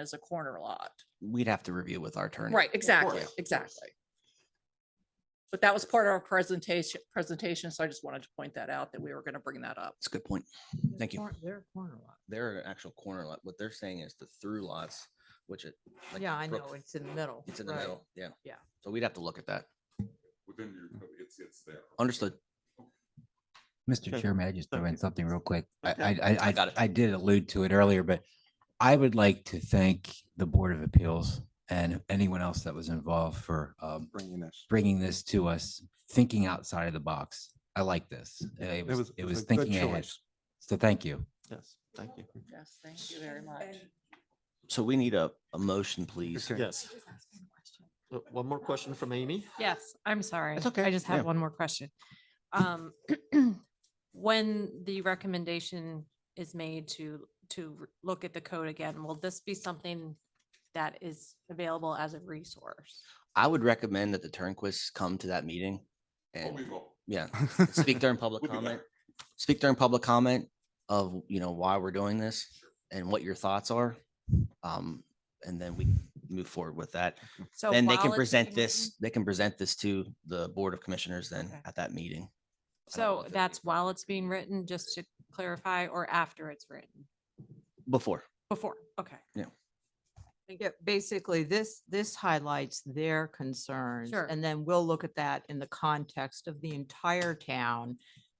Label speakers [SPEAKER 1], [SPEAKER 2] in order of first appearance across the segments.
[SPEAKER 1] as a corner lot.
[SPEAKER 2] We'd have to review with our attorney.
[SPEAKER 1] Right, exactly,
[SPEAKER 2] course.
[SPEAKER 1] exactly. But that was part of our presentation, presentation, so I just wanted to point that out, that we were gonna bring that up.
[SPEAKER 2] That's a good point. Thank you.
[SPEAKER 3] Cor- They're a corner lot.
[SPEAKER 4] They're an actual corner lot. What they're saying is the through lots, which it. like
[SPEAKER 3] Yeah,
[SPEAKER 4] the
[SPEAKER 3] I
[SPEAKER 4] brook-
[SPEAKER 3] know. It's in the middle.
[SPEAKER 4] It's in the
[SPEAKER 3] right.
[SPEAKER 4] middle, yeah.
[SPEAKER 3] Yeah.
[SPEAKER 2] So we'd have to look at that.
[SPEAKER 5] within your,
[SPEAKER 2] Hmm.
[SPEAKER 5] code, it's, it's there.
[SPEAKER 2] Understood.
[SPEAKER 6] Mr.
[SPEAKER 7] Sure.
[SPEAKER 6] Chairman, I just throw in something real quick. I,
[SPEAKER 7] Okay.
[SPEAKER 6] I, I,
[SPEAKER 2] I got it.
[SPEAKER 6] I- I did allude to it earlier, but I would like to thank the Board of Appeals and anyone else that was involved for um,
[SPEAKER 7] Bringing this.
[SPEAKER 6] bringing this to us, thinking outside of the box. I like this. Uh, It was, it was
[SPEAKER 7] a good
[SPEAKER 6] thinking ahead.
[SPEAKER 7] choice.
[SPEAKER 6] So thank you.
[SPEAKER 7] Yes, thank you.
[SPEAKER 1] Yes, thank you very much.
[SPEAKER 4] So we need a, a motion, please.
[SPEAKER 7] Okay.
[SPEAKER 8] Can
[SPEAKER 7] Yes.
[SPEAKER 8] I just ask one question?
[SPEAKER 7] Uh, One more question from Amy.
[SPEAKER 8] Yes, I'm sorry.
[SPEAKER 7] okay.
[SPEAKER 8] I just
[SPEAKER 7] Yeah.
[SPEAKER 8] have one more question. Um, When the recommendation is made to, to r- look at the code again, will this be something that is available as a resource?
[SPEAKER 2] I would recommend that the Turnquists come to that meeting
[SPEAKER 5] Oh, we
[SPEAKER 2] and,
[SPEAKER 5] will.
[SPEAKER 2] yeah, speak during public
[SPEAKER 5] We'll be
[SPEAKER 2] comment.
[SPEAKER 5] back.
[SPEAKER 2] Speak during public comment of, you know, why we're doing this and what your thoughts are. Um, and then we move forward with that.
[SPEAKER 8] So
[SPEAKER 2] Then they
[SPEAKER 8] while
[SPEAKER 2] can
[SPEAKER 8] it's
[SPEAKER 2] present
[SPEAKER 8] being
[SPEAKER 2] this,
[SPEAKER 8] written-
[SPEAKER 2] they can present this to the Board of Commissioners then
[SPEAKER 8] Okay.
[SPEAKER 2] at that meeting. I don't know
[SPEAKER 8] So
[SPEAKER 2] if it-
[SPEAKER 8] that's while it's being written, just to clarify, or after it's written?
[SPEAKER 2] Before.
[SPEAKER 8] Before, okay.
[SPEAKER 3] Yeah, basically, this, this highlights their concerns.
[SPEAKER 8] Sure.
[SPEAKER 3] And then we'll look at that in the context of the entire town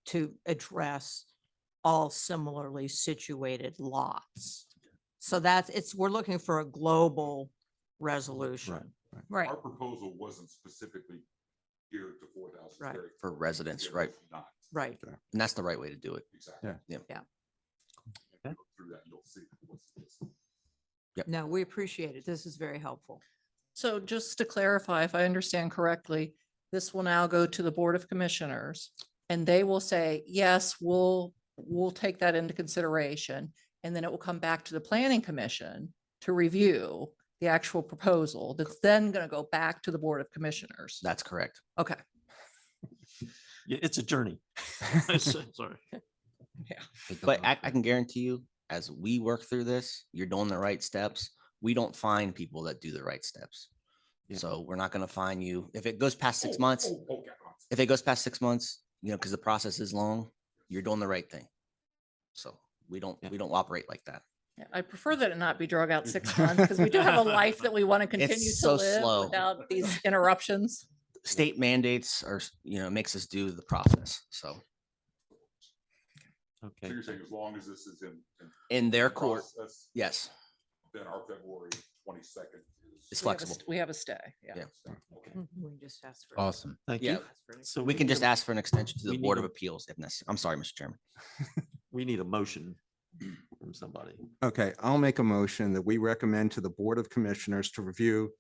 [SPEAKER 3] to address all similarly situated lots. So that's, it's, we're looking for a global resolution.
[SPEAKER 7] right.
[SPEAKER 8] Right,
[SPEAKER 5] Our proposal wasn't specifically geared to four thousand.
[SPEAKER 3] Right.
[SPEAKER 2] For residents, right.
[SPEAKER 5] Not,
[SPEAKER 3] Right.
[SPEAKER 2] And that's the right way to do it.
[SPEAKER 5] exactly.
[SPEAKER 7] Yeah.
[SPEAKER 2] Yeah.
[SPEAKER 3] Yeah.
[SPEAKER 5] If you go Through that, you'll see. what's- what's-
[SPEAKER 3] No, we appreciate it. This is very helpful.
[SPEAKER 1] So just to clarify, if I understand correctly, this will now go to the Board of Commissioners and they will say, yes, we'll, we'll take that into consideration. And then it will come back to the Planning Commission to review the actual proposal that's then going to go back to the Board of Commissioners.
[SPEAKER 2] That's correct.
[SPEAKER 1] Okay.
[SPEAKER 7] Yeah, it's a journey. Sorry.
[SPEAKER 6] Take a
[SPEAKER 2] But
[SPEAKER 6] look.
[SPEAKER 2] I, I can guarantee you, as we work through this, you're doing the right steps. We don't find people that do the right steps.
[SPEAKER 7] Yeah.
[SPEAKER 2] So we're not gonna find you. If it goes past six
[SPEAKER 5] Oh,
[SPEAKER 2] months,
[SPEAKER 5] oh, oh, got lots.
[SPEAKER 2] if it goes past six months, you know, because the process is long, you're doing the right thing. So we don't,
[SPEAKER 7] Yeah.
[SPEAKER 2] we don't operate like that.
[SPEAKER 1] Yeah, I prefer that it not be drug out six months because we do have a life that we want to continue to
[SPEAKER 2] so slow.
[SPEAKER 1] live without these interruptions.
[SPEAKER 2] State mandates are, s- you know, makes us do the process. So
[SPEAKER 5] So
[SPEAKER 7] Okay.
[SPEAKER 5] you're saying as long as this is in. in
[SPEAKER 2] in their court,
[SPEAKER 5] process,
[SPEAKER 2] yes,
[SPEAKER 5] Then our February twenty-second
[SPEAKER 2] It's
[SPEAKER 1] We have a
[SPEAKER 5] is.
[SPEAKER 2] flexible.
[SPEAKER 1] st- We have a stay, yeah.
[SPEAKER 2] Yeah.
[SPEAKER 5] Okay.
[SPEAKER 3] We just asked for.
[SPEAKER 6] Awesome.
[SPEAKER 7] Thank
[SPEAKER 2] Yeah.
[SPEAKER 7] you.
[SPEAKER 3] asked for an
[SPEAKER 7] So
[SPEAKER 2] we can
[SPEAKER 7] need
[SPEAKER 2] just
[SPEAKER 7] a-
[SPEAKER 2] ask for an extension to
[SPEAKER 7] we
[SPEAKER 2] the
[SPEAKER 7] need
[SPEAKER 2] Board
[SPEAKER 7] a-
[SPEAKER 2] of Appeals if necessary. I'm sorry, Mr. Chairman.
[SPEAKER 7] We need a motion from somebody.
[SPEAKER 9] Okay, I'll make a motion that we recommend to the Board of Commissioners to review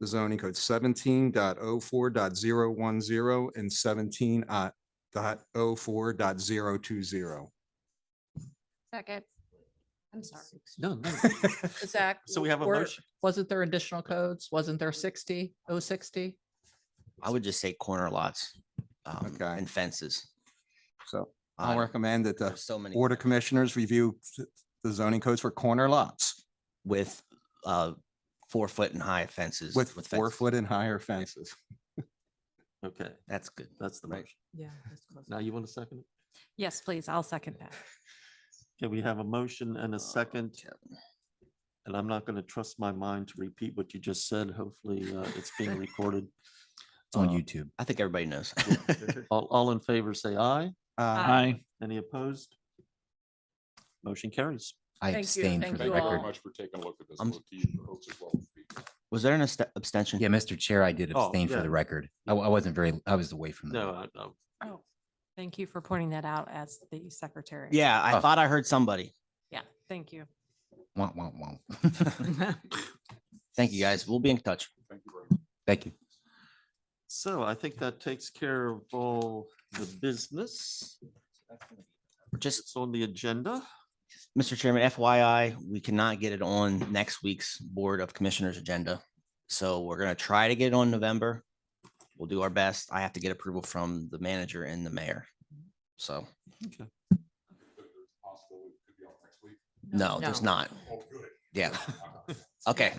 [SPEAKER 9] the zoning code 17.04.010 and seventeen uh, dot oh four dot zero two zero.
[SPEAKER 8] second. I'm sorry.
[SPEAKER 7] No, no.
[SPEAKER 1] Zach.
[SPEAKER 7] So we have a
[SPEAKER 1] were-
[SPEAKER 7] motion.
[SPEAKER 1] Wasn't there additional codes? Wasn't there 60, 060?
[SPEAKER 2] I would just say corner lots um,
[SPEAKER 9] Okay.
[SPEAKER 2] and fences.
[SPEAKER 9] So
[SPEAKER 2] I-
[SPEAKER 9] I'll recommend that the
[SPEAKER 2] There's so many.
[SPEAKER 9] Board of
[SPEAKER 2] corners.
[SPEAKER 9] Commissioners review th- the zoning codes for corner lots
[SPEAKER 2] with uh four foot and high fences.
[SPEAKER 9] with four
[SPEAKER 2] fences.
[SPEAKER 9] foot and higher fences.
[SPEAKER 7] Okay,
[SPEAKER 2] That's good.
[SPEAKER 7] that's the
[SPEAKER 2] Right.
[SPEAKER 7] motion.
[SPEAKER 3] Yeah. that's close.
[SPEAKER 7] Now you want a second? it?
[SPEAKER 8] Yes, please, I'll second that.
[SPEAKER 7] Okay, we have a motion and
[SPEAKER 2] Oh,
[SPEAKER 7] a second.
[SPEAKER 2] Yep.
[SPEAKER 7] And I'm not going to trust my mind to repeat what you just said. Hopefully, uh, it's being recorded.
[SPEAKER 6] It's on
[SPEAKER 7] Uh,
[SPEAKER 6] YouTube.
[SPEAKER 2] I think everybody knows.
[SPEAKER 7] All, all in favor, say aye.
[SPEAKER 9] Uh,
[SPEAKER 8] Aye.
[SPEAKER 7] Any opposed? Motion carries.
[SPEAKER 6] I
[SPEAKER 1] Thank you.
[SPEAKER 6] abstained for
[SPEAKER 1] Thank
[SPEAKER 6] the
[SPEAKER 5] Thank you very
[SPEAKER 6] record.
[SPEAKER 5] much for taking a look at this.
[SPEAKER 2] I'm-
[SPEAKER 5] We'll see you folks as well as we-
[SPEAKER 2] Was there an abst- abstention?
[SPEAKER 6] Yeah, Mr. Chair, I did
[SPEAKER 7] Oh,
[SPEAKER 6] abstain for
[SPEAKER 7] yeah.
[SPEAKER 6] the record. I, I wasn't very, I was away from the.
[SPEAKER 7] No, uh, I, no.
[SPEAKER 8] Oh, thank you for pointing that out as the secretary.
[SPEAKER 2] Yeah, I
[SPEAKER 6] Oh.
[SPEAKER 2] thought I heard somebody.
[SPEAKER 8] Yeah, thank you.
[SPEAKER 6] Womp, womp, womp.
[SPEAKER 2] Thank you, guys. We'll be in touch.
[SPEAKER 5] Thank you very much.
[SPEAKER 6] Thank you.
[SPEAKER 7] So I think that takes care of all the business.
[SPEAKER 2] Just,
[SPEAKER 7] It's on the agenda.
[SPEAKER 2] Mr. Chairman, FYI, we cannot get it on next week's Board of Commissioners agenda. So we're gonna try to get it on November. We'll do our best. I have to get approval from the manager and the mayor. So,
[SPEAKER 5] that there's a possibility it could be out next week.
[SPEAKER 2] no, there's
[SPEAKER 3] No.
[SPEAKER 2] not.
[SPEAKER 5] Oh, good.
[SPEAKER 2] Yeah. Okay.